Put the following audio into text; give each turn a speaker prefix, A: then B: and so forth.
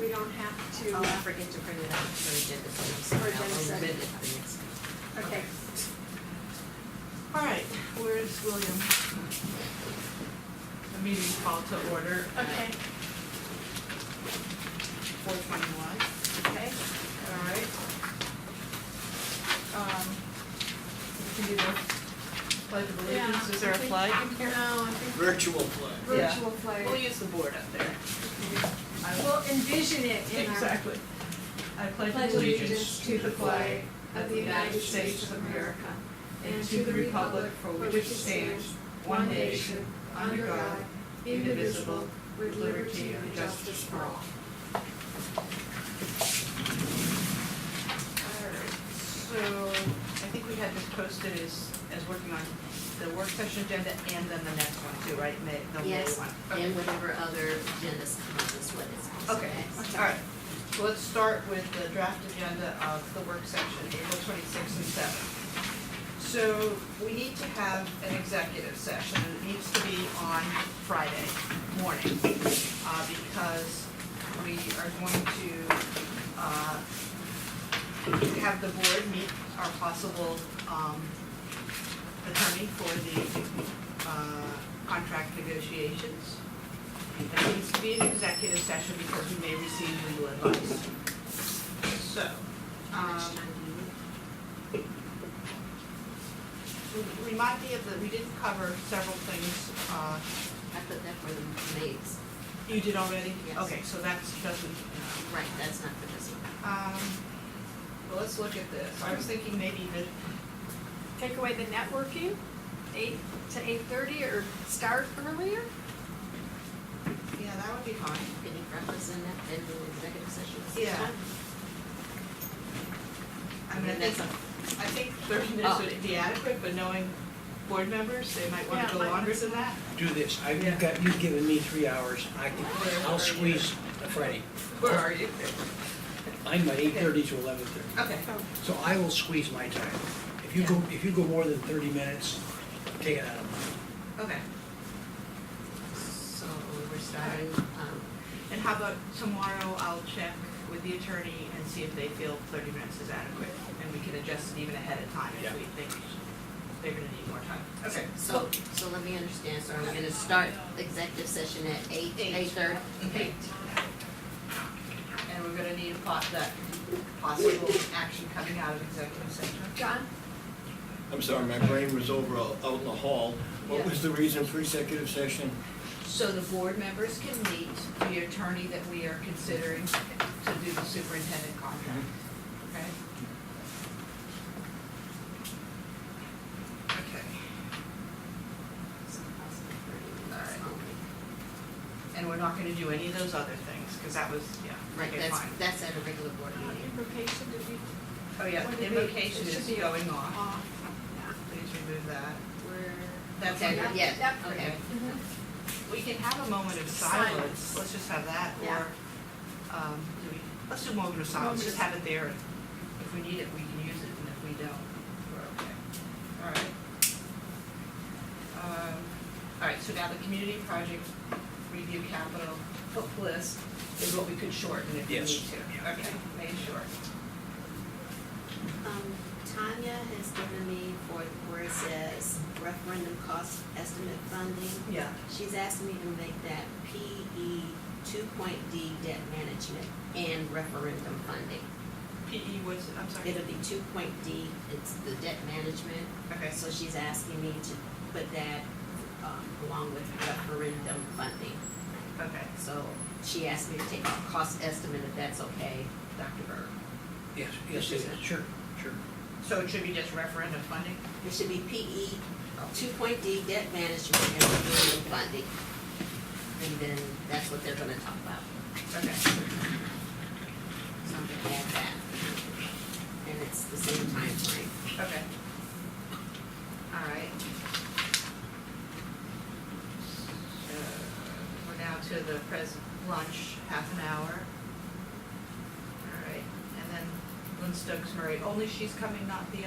A: we don't have to,
B: Oh,
C: I'll forget to print it out for agenda settings.
A: For agenda
C: I'll amend
A: setting.
C: it for next time.
A: okay.
B: All right, where's William? The meeting's called to order
A: Okay,
B: four twenty-one,
A: okay.
B: all right. Um, we can do the pledge of allegiance,
A: Yeah,
B: is
A: I
B: there a
A: think-
B: flag in here?
A: No, I think
D: Virtual play.
B: Yeah.
A: virtual
B: We'll
A: play,
B: use the board up there. I will-
A: we'll envision it in our
B: Exactly. I pledge allegiance to the flag
A: of the United States of America
B: and to the republic for which it stands, one nation, under God, indivisible,
A: with liberty and justice for all.
B: Alright, So I think we had this posted as, as working on the work session agenda and then the next one too, right, May, the May
C: Yes,
B: one? Okay.
C: and whatever other agendas come up is what is also
B: Okay,
C: next.
B: alright, so let's start with the draft agenda of the work section, April twenty-sixth and seventh. So we need to have an executive session, it needs to be on Friday morning, uh, because we are going to, uh, have the board meet our possible, um, attorney for the, uh, contract negotiations. There needs to be an executive session because we may receive legal advice. So,
C: How much
B: um,
C: time do you need?
B: re- remind me of the, we did cover several things, uh,
C: I put that for the maids.
B: you did already?
C: Yes.
B: Okay, so that's, doesn't, uh,
C: Right, that's not for this one.
B: um, well, let's look at this. I was thinking maybe the
A: Take away the networking, eight to eight thirty or start earlier?
B: yeah, that would be fine.
C: Any breakfast in that, in the executive session? at six
B: Yeah.
C: o'clock?
B: I mean, I
C: And that's
B: think,
C: a,
B: I think thirty minutes would be adequate, but knowing board members, they might wanna
A: Yeah,
B: go
A: might-
B: longer than that.
D: Do this, I've
B: Yeah.
D: got, you've given me three hours, I can,
B: Where are
D: I'll
B: you?
D: squeeze a Friday.
B: Where are you?
D: I'm at eight thirty to eleven thirty,
B: Okay.
D: so I will squeeze my time. If you go, if you go more than thirty minutes, take it out of mine.
B: Okay.
C: so we're starting, um,
B: And how about tomorrow, I'll check with the attorney and see if they feel thirty minutes is adequate, and we can adjust it even ahead of time if
D: Yeah.
B: we think they're gonna need more time. Okay.
C: so, so let me understand, so are we gonna start executive session at eight,
B: Eight.
C: eight thirty?
B: Okay. And we're gonna need a pot, that possible action coming out of executive session.
A: John?
E: I'm sorry, my brain was over out out in the hall. What
B: Yeah.
E: was the reason for executive session?
B: So the board members can meet the attorney that we are considering to do the superintendent contract, okay? Okay, Alright. and we're not gonna do any of those other things, cause that was, yeah,
C: Right,
B: okay,
C: that's,
B: fine.
C: that's at a regular board meeting.
A: Implication to be
B: Oh, yeah,
A: What
B: the
A: did we-
B: invocation
A: it
B: is
A: should be-
B: going off,
A: off.
B: please remove that.
C: We're,
B: That's
C: Okay,
B: under-
C: yeah,
A: Yep.
C: okay.
B: Mm-hmm. We can have a moment of
A: Silence.
B: silence, let's just have that,
A: Yeah.
B: or, um, do we, let's do a moment of silence,
A: Moment
B: just
A: of-
B: have it there. and If we need it, we can use it, and if we don't, we're okay. All right. Um, All right, so now the community project review capital hook list is what we could shorten if we need
D: Yes.
B: to.
D: Yeah.
B: Okay, made sure.
C: Um, Tanya has given me for where it says referendum cost estimate funding.
B: Yeah.
C: She's asked me to make that PE two point D debt management and referendum funding.
B: PE E was, I'm sorry.
C: It'll be two point D, it's the debt management,
B: Okay,
C: so she's asking me to put that, um, along with referendum funding.
B: okay,
C: So she asked me to take off cost estimate, if that's okay, Dr. Berg.
D: Yes, yes, it is. sure, sure.
B: so it should be just referendum funding?
C: It should be PE two point D debt management and referendum funding. And then that's what they're gonna talk about,
B: Okay.
C: so I'm gonna add that. And it's the same timeframe.
B: Okay. All right. So, We're now to the pres, lunch, half an hour. All right, and then Lynn Stokes Murray, only she's coming, not the